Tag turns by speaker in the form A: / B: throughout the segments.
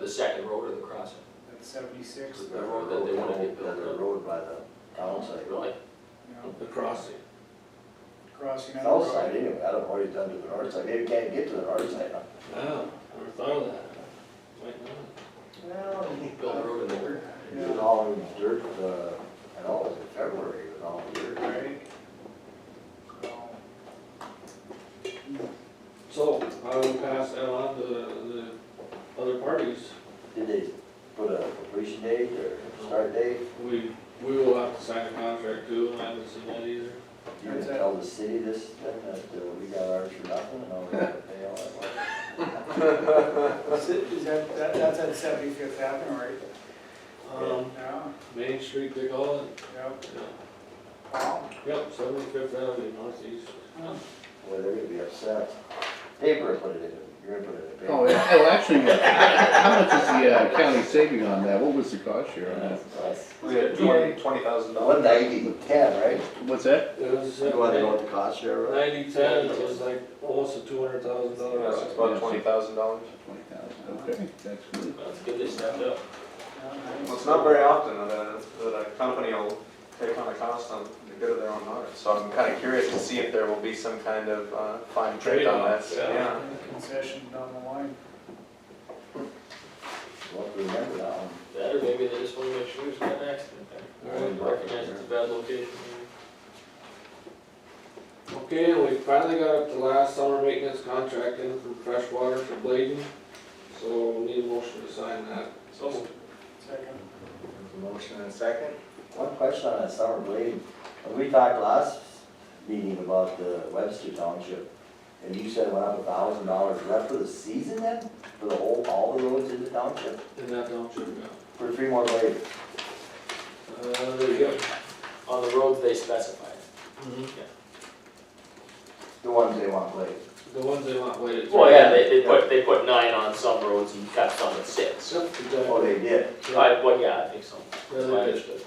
A: the second road or the crossing?
B: That's seventy-six.
A: The road that they wanna get built
C: The
A: up.
C: road by the town site.
A: Really?
B: No,
D: The crossing.
B: Crossing on the
C: South side eh?
B: road.
C: anyway, I don't know what he's done to the north side, maybe can't get to the north side. huh?
D: Wow, never thought of that. Might not.
C: Well.
A: Build a road in there?
C: It was all in dirt, uh, and all, it was in February, it was all dirt.
B: Right? So,
D: So I will pass that on to the the other parties.
C: Did they put a completion date or start date?
D: We, we will have to sign a contract too, and I haven't seen that either.
C: You didn't tell the city this, then, that uh, we got ours for nothing, and all we got to pay all that money?
B: Is that, that, that's at seventy-fifth Avenue, right?
D: Um,
B: Yeah,
D: Main Street, they call it.
B: yep.
D: Yeah.
B: Wow.
D: Yep, seventy-fifth Avenue northeast.
C: Boy, they're gonna be upset. Paper put it in, you're gonna put it in
E: Oh,
C: paper.
E: yeah, oh, actually, how much is the uh, county saving on that? What was the cost share on that?
F: We had twenty, twenty thousand
C: One
F: dollars.
C: ninety, ten, right?
E: What's that?
D: It was
C: You wanna know
D: uh,
C: what the cost share was?
D: ninety-ten, it was like almost a two hundred thousand dollar
F: That's about twenty thousand dollars.
E: Twenty thousand. Okay, that's good.
A: That's good they stepped up.
B: Yeah,
F: Well,
B: nice.
F: it's not very often that a, that a company will take on a cost on the good of their own art. So I'm kind of curious to see if there will be some kind of, uh, fine print on that.
D: Trade-off, yeah.
B: Concession down the line.
C: Well, if you remember that one.
A: That or maybe they just wanna make sure there's not an accident there.
C: Right.
A: Recognize it's a bad location.
D: Okay, and we finally got up to last summer maintenance contract in from Freshwater for Bladen. So we need a motion to sign that.
A: So moved.
B: Second.
F: Motion and second?
C: One question on that summer blade. When We talked last meeting about the Webster Township, and you said it went up a thousand dollars. Is that for the season then? For the whole, all the roads in the township?
D: In that township, yeah.
C: For three more blades?
D: Uh, there you go.
A: On the roads they specified.
D: Mm-hmm.
C: The ones they want blades?
D: The ones they want waited.
A: Well, yeah, they, they put, they put nine on some roads and cut some at six.
D: Except the guy-
C: Oh, they did?
A: I, well, yeah, I think so.
D: Yeah,
A: That's
D: they
A: my
D: did.
A: understanding.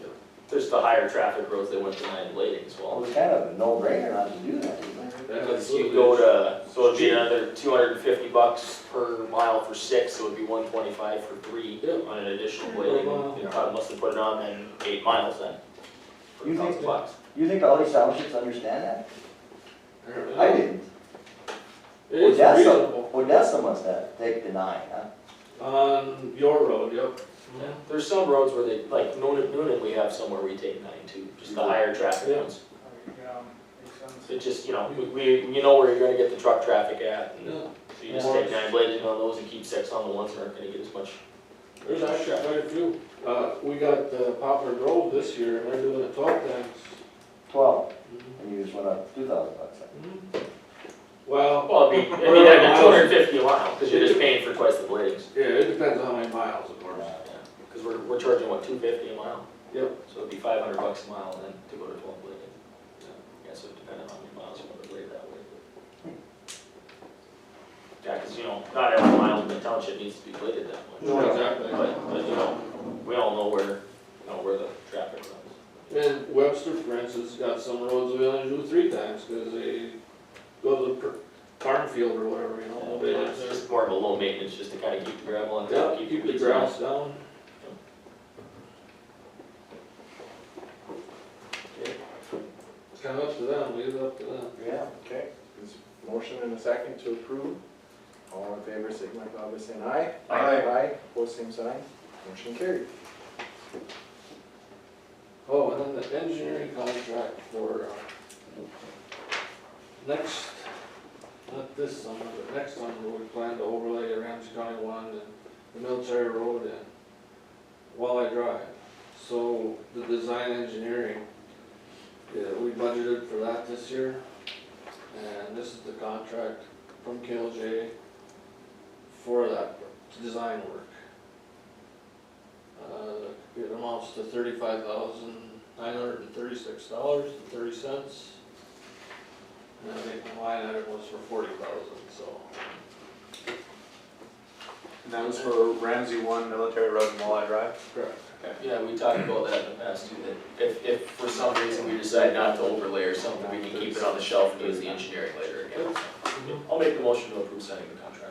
A: Yeah. There's the higher traffic roads, they went to nine blading as
C: Well, it
A: well.
C: was kind of a no-brainer not to do that, isn't it?
D: Yeah,
A: Because you
D: absolutely.
A: go to, so it'd be another two hundred and fifty bucks per mile for six, so it'd be one twenty-five for three
D: Yeah.
A: on an additional
D: mile.
A: blading. You probably must have put it on then eight miles then. For a
C: You think
A: thousand
C: that-
A: bucks.
C: You think all these townships understand that?
D: Apparently.
C: I didn't.
D: It is
C: Odessa,
D: reasonable.
C: Odessa must have, take the nine, huh?
D: On your road, yep.
A: Yeah. There's some roads where they, like Noonan, Noonan, we have somewhere we take nine too, just the
C: Yeah.
A: higher traffic
D: Yeah.
A: roads.
B: Yeah, makes sense.
A: It just, you know, we- we, you know where you're gonna get the truck traffic at, and
D: Yeah.
A: so you just take nine blading on those and keep six on the ones that aren't gonna get as much.
D: There's actually quite a few. Uh, we got uh, Poplar Grove this year, and they're doing it twelve times.
C: Twelve, and you just went up two thousand bucks.
D: Mm-hmm. Well,
A: Well, it'd be, it'd be
D: Whatever
A: like
D: miles.
A: two hundred and fifty a mile, cause you're just paying for twice the bladings.
D: yeah, it depends on how many miles, of course.
A: Yeah, Cause we're, we're charging, what, two fifty a mile?
D: Yep.
A: So it'd be five hundred bucks a mile and then to go to twelve blading. Yeah, so depending on how many miles you wanna blade that way. Yeah, cause you know, not every mile in the township needs to be bladed that much.
D: No, exactly.
A: But, but you know, we all know where, you know, where the traffic runs.
D: And Webster, for instance, got some roads we only do three times, cause they go to the per- farm field or whatever, you know, they live
A: It's
D: there.
A: just more of a low maintenance, just to kind of keep the gravel on top,
D: Yeah,
A: keep
D: keep
A: the
D: the
A: weeds out.
D: grass down. It's kind of up to them, leave it up to them.
F: Yeah. Okay. There's a motion and a second to approve. All in favor, signify by saying aye.
A: Aye.
F: Aye, pose same sign. Motion carried.
D: Oh, and then the engineering contract for, uh, next, not this summer, but next summer, we plan to overlay the Ramsey County one and the military road and Walleye Drive. So the design engineering, yeah, we budgeted for that this year. And this is the contract from KLJ for that design work. Uh, it amounts to thirty-five thousand, nine hundred and thirty-six dollars and thirty cents. And I think the line item was for forty thousand, so.
F: And that was for Ramsey One Military Road and Walleye Drive?
D: Correct.
A: Yeah, we talked about that in the past too, that if, if for some reason we decide not to overlay or something, we can keep it on the shelf and use the engineering later again. I'll make the motion to approve signing the contract.